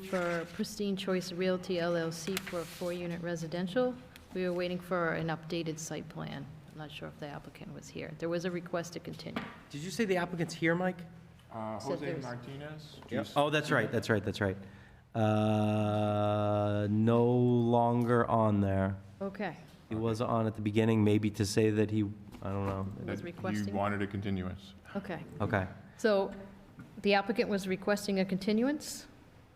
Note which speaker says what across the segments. Speaker 1: for Pristine Choice Realty LLC for a four-unit residential. We were waiting for an updated site plan. I'm not sure if the applicant was here. There was a request to continue.
Speaker 2: Did you say the applicant's here, Mike?
Speaker 3: Uh,
Speaker 1: So
Speaker 3: Jose
Speaker 1: there's-
Speaker 3: Martinez? Juice-
Speaker 2: Oh, that's right, that's right, that's right. Uh, No longer on there.
Speaker 1: Okay.
Speaker 2: He was on at the beginning, maybe to say that he, I don't know.
Speaker 1: Was
Speaker 3: that
Speaker 1: requesting-
Speaker 3: You wanted a continuance.
Speaker 1: Okay.
Speaker 2: Okay.
Speaker 1: So the applicant was requesting a continuance?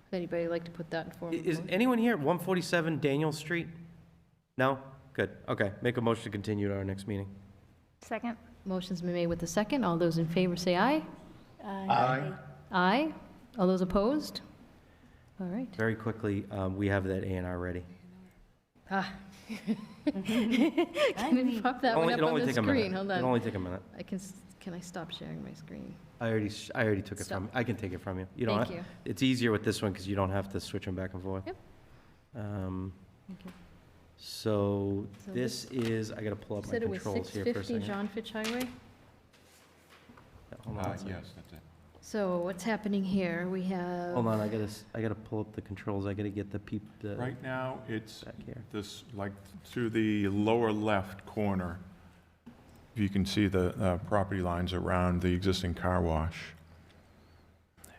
Speaker 1: Does anybody like to put that in
Speaker 2: I-
Speaker 1: form? of
Speaker 2: Is
Speaker 1: motion?
Speaker 2: anyone here at 147 Daniel Street? No? Good, okay. Make a motion to continue to our next meeting.
Speaker 4: Second?
Speaker 1: Motion's been made with the second. All those in favor say aye.
Speaker 3: Aye.
Speaker 1: Aye. All those opposed? All right.
Speaker 2: Very quickly, um, we have that A and R ready.
Speaker 1: Ah. Can you pop that one
Speaker 2: Only-
Speaker 1: up
Speaker 2: it'll
Speaker 1: on
Speaker 2: only
Speaker 1: the
Speaker 2: take a minute.
Speaker 1: screen? Hold
Speaker 2: It'll
Speaker 1: on.
Speaker 2: only take a minute.
Speaker 1: I can, s- can I stop sharing my screen?
Speaker 2: I already, sh- I already took it from, I can take it from you. You don't,
Speaker 1: Thank
Speaker 2: ha-
Speaker 1: you.
Speaker 2: it's easier with this one because you don't have to switch them back and forth.
Speaker 1: Yep.
Speaker 2: Um,
Speaker 1: Thank you.
Speaker 2: So
Speaker 1: So
Speaker 2: this is, I gotta pull up my
Speaker 1: Said it was
Speaker 2: controls here for a
Speaker 1: 650
Speaker 2: second.
Speaker 1: John Fitch Highway.
Speaker 2: Hold on,
Speaker 3: Uh,
Speaker 2: a second.
Speaker 3: Yes, that's it.
Speaker 1: So what's happening here? We have.
Speaker 2: hold on, I gotta, s- I gotta pull up the controls, I gotta get the peep, the,
Speaker 3: Right now, it's
Speaker 2: back here.
Speaker 3: this, like, to the lower left corner. If you can see the uh, property lines around the existing car wash.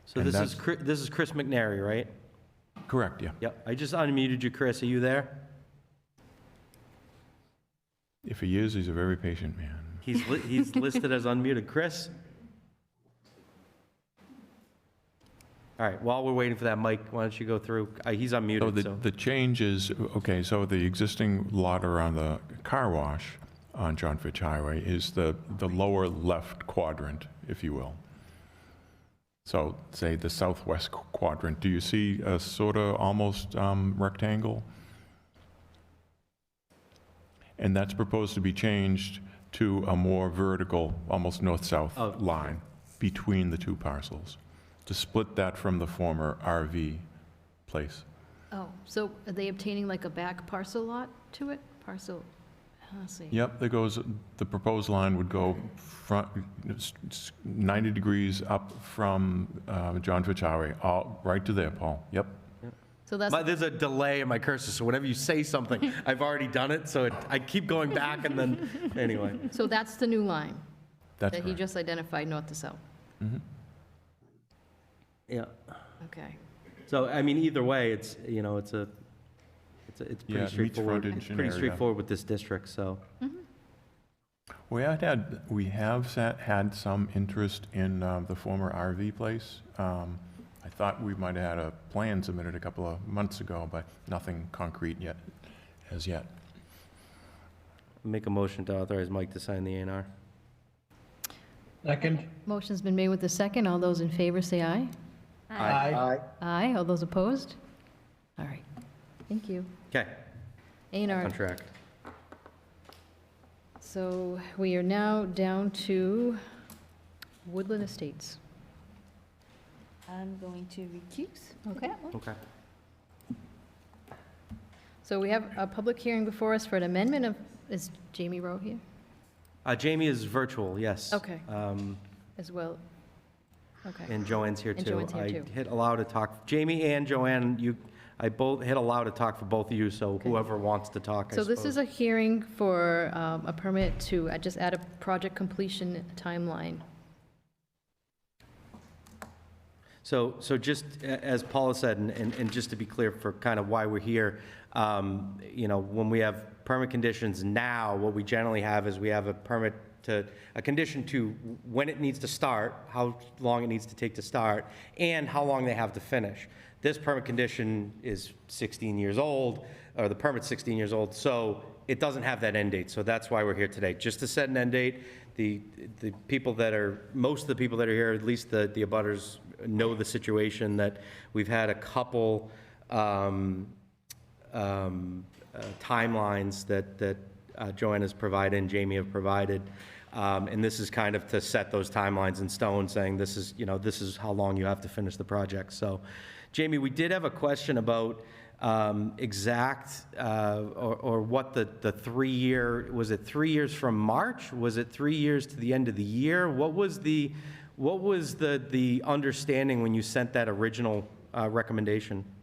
Speaker 2: So
Speaker 3: And
Speaker 2: this is,
Speaker 3: that's-
Speaker 2: Chri- this is Chris McNary, right?
Speaker 3: Correct, yeah.
Speaker 2: Yep, I just unmuted you, Chris, are you there?
Speaker 3: If he is, he's a very patient man.
Speaker 2: He's, li- he's listed as unmuted, Chris? All right, while we're waiting for that, Mike, why don't you go through, Uh, he's
Speaker 3: So
Speaker 2: unmuted,
Speaker 3: the,
Speaker 2: so.
Speaker 3: the change is, okay, so the existing lot around the car wash on John Fitch Highway is the, the lower left quadrant, if you will. So say the southwest qu- quadrant, do you see a sort of almost um, rectangle? And that's proposed to be changed to a more vertical, almost north-south
Speaker 2: Oh.
Speaker 3: line between the two parcels, to split that from the former RV place.
Speaker 1: Oh, so are they obtaining like a back parcel lot to it? Parcel, let's see.
Speaker 3: Yep, that goes, the proposed line would go front, s- s- 90 degrees up from uh, John Fitch Highway, all, right to there, Paul. Yep.
Speaker 1: So that's,
Speaker 2: My, there's a delay in my cursor, so whenever you say something, I've already done it, so it, I keep going back and then, anyway.
Speaker 1: so that's the new line
Speaker 3: That's
Speaker 1: that he
Speaker 3: correct.
Speaker 1: just identified north to south.
Speaker 2: Yeah.
Speaker 1: Okay.
Speaker 2: So, I mean, either way, it's, you know, it's a, it's, a- it's
Speaker 3: Yeah,
Speaker 2: pretty
Speaker 3: it meets
Speaker 2: straightforward.
Speaker 3: frontage and
Speaker 2: Pretty
Speaker 3: area.
Speaker 2: straightforward with this district, so.
Speaker 3: We had had, we have sat- had some interest in um, the former RV place. Um, I thought we might have had a plan submitted a couple of months ago, but nothing concrete yet, as yet.
Speaker 2: Make a motion to authorize Mike to sign the A and R.
Speaker 5: Second.
Speaker 1: Motion's been made with the second. All those in favor say aye.
Speaker 5: Aye.
Speaker 1: Aye. All those opposed? All right. Thank you.
Speaker 2: Okay,
Speaker 1: A and R.
Speaker 2: contract.
Speaker 1: So we are now down to Woodland Estates.
Speaker 6: I'm going to recuse.
Speaker 1: Okay.
Speaker 2: Okay.
Speaker 1: So we have a public hearing before us for an amendment of, is Jamie Rowe here
Speaker 2: Uh, Jamie is virtual, yes.
Speaker 1: Okay.
Speaker 2: Um,
Speaker 1: as well? Okay.
Speaker 2: and Joanne's here too.
Speaker 1: And Joanne's here too.
Speaker 2: I hit allow to talk, Jamie and Joanne, you, I both, hit allow to talk for both of you, so
Speaker 1: Okay.
Speaker 2: whoever wants to talk, I
Speaker 1: So this
Speaker 2: suppose.
Speaker 1: is a hearing for um, a permit to uh, just add a project completion timeline.
Speaker 2: So, so just a- as Paula said, and, and and just to be clear for kind of why we're here, um, you know, when we have permit conditions now, what we generally have is we have a permit to, a condition to when it needs to start, how long it needs to take to start, and how long they have to finish. This permit condition is 16 years old, or the permit's 16 years old, so it doesn't have that end date, so that's why we're here today. Just to set an end date, the, the people that are, most of the people that are here, at least the, the abutters, know the situation, that we've had a couple um, um, uh, timelines that, that uh, Joanne has provided and Jamie have provided. Um, And this is kind of to set those timelines in stone, saying this is, you know, this is how long you have to finish the project. So, Jamie, we did have a question about um, exact, uh, or or what the, the three-year, was it three years from March? Was it three years to the end of the year? What was the, what was the, the understanding when you sent that original uh, uh, recommendation.